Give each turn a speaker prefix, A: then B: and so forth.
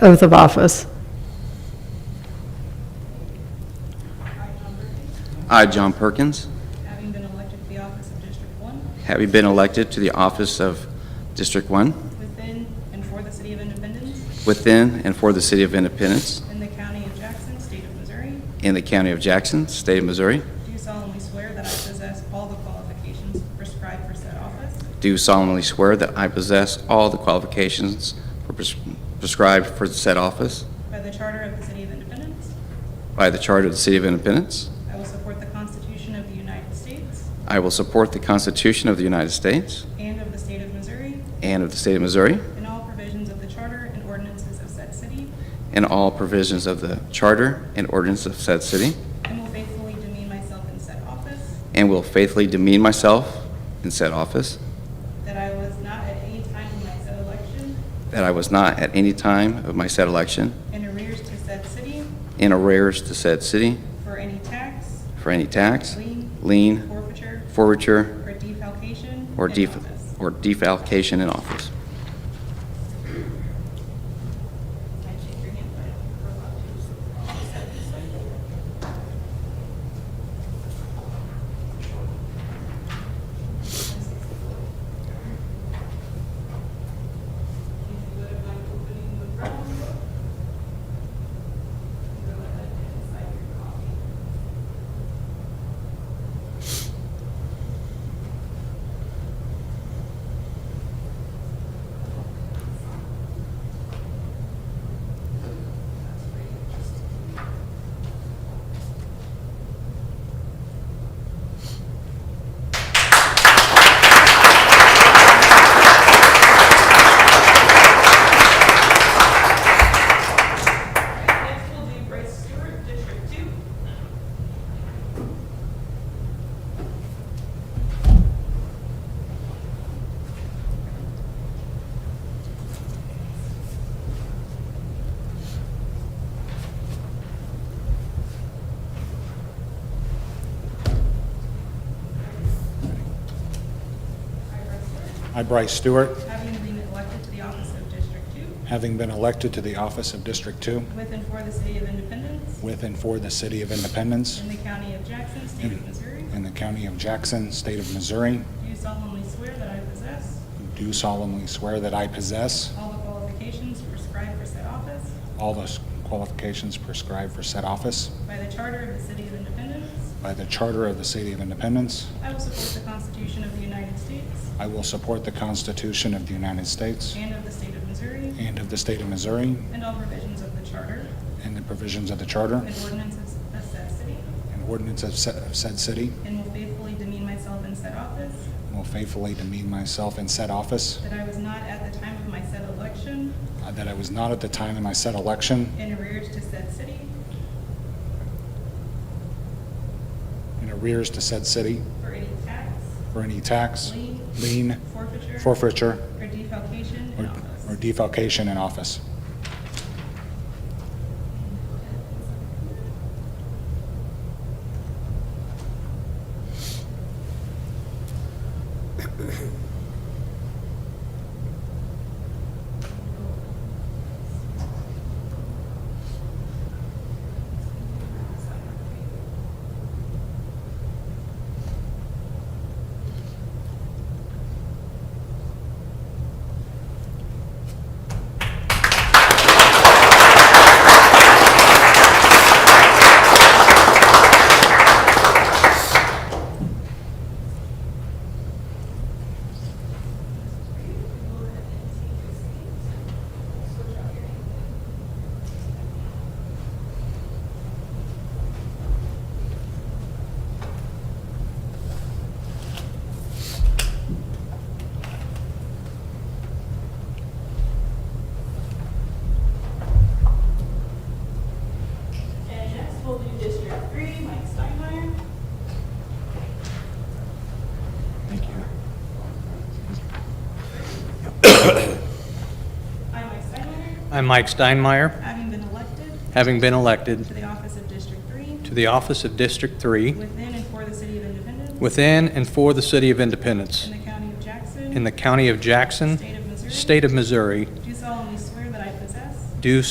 A: oath of office.
B: I, John Perkins,
C: having been elected to the office of District 1
B: having been elected to the office of District 1
C: within and for the City of Independence
B: within and for the City of Independence
C: in the County of Jackson, State of Missouri,
B: in the County of Jackson, State of Missouri,
C: do solemnly swear that I possess all the qualifications prescribed for said office,
B: do solemnly swear that I possess all the qualifications for pres- prescribed for said office
C: by the Charter of the City of Independence,
B: by the Charter of the City of Independence.
C: I will support the Constitution of the United States
B: I will support the Constitution of the United States
C: and of the State of Missouri,
B: and of the State of Missouri
C: and all provisions of the Charter and ordinances of said city,
B: and all provisions of the Charter and ordinance of said city,
C: and will faithfully demean myself in said office,
B: and will faithfully demean myself in said office,
C: that I was not at any time in my said election
B: that I was not at any time of my said election
C: in arrears to said city
B: in arrears to said city
C: for any tax,
B: for any tax,
C: lien,
B: lien,
C: forfeiture,
B: forfeiture,
C: or defalcation
B: or
C: in
B: def-
C: office.
B: or defalcation in office.
C: Next, we'll do Bryce Stewart, District Two.
D: I, Bryce Stewart,
C: Having been elected to the office of District Two
D: having been elected to the office of District 2
C: with and for the City of Independence
D: with and for the City of Independence
C: in the County of Jackson, State of Missouri,
D: in the County of Jackson, State of Missouri,
C: do solemnly swear that I possess
D: do solemnly swear that I possess
C: all the qualifications prescribed for said office
D: all the qualifications prescribed for said office
C: by the Charter of the City of Independence.
D: by the Charter of the City of Independence.
C: I will support the Constitution of the United States
D: I will support the Constitution of the United States
C: and of the State of Missouri,
D: and of the State of Missouri
C: and all provisions of the Charter
D: and the provisions of the Charter
C: and ordinances of said city,
D: and ordinance of sa- of said city,
C: and will faithfully demean myself in said office,
D: and will faithfully demean myself in said office,
C: that I was not at the time of my said election
D: uh, that I was not at the time in my said election
C: in arrears to said city
D: in arrears to said city
C: for any tax,
D: for any tax,
C: lien,
D: lien,
C: forfeiture,
D: forfeiture,
C: or defalcation in
D: or or
C: office.
D: defalcation in office.
C: And next, we'll do District Three, Mike Steinmeier.
D: Thank you.
C: I, Mike Steinmeier,
E: I'm Mike Steinmeier,
C: having been elected
E: having been elected
C: to the office of District Three
E: to the office of District 3
C: within and for the City of Independence
E: within and for the City of Independence
C: in the County of Jackson,
E: in the County of Jackson,
C: State of Missouri,
E: State of Missouri,
C: do solemnly swear that I possess
E: do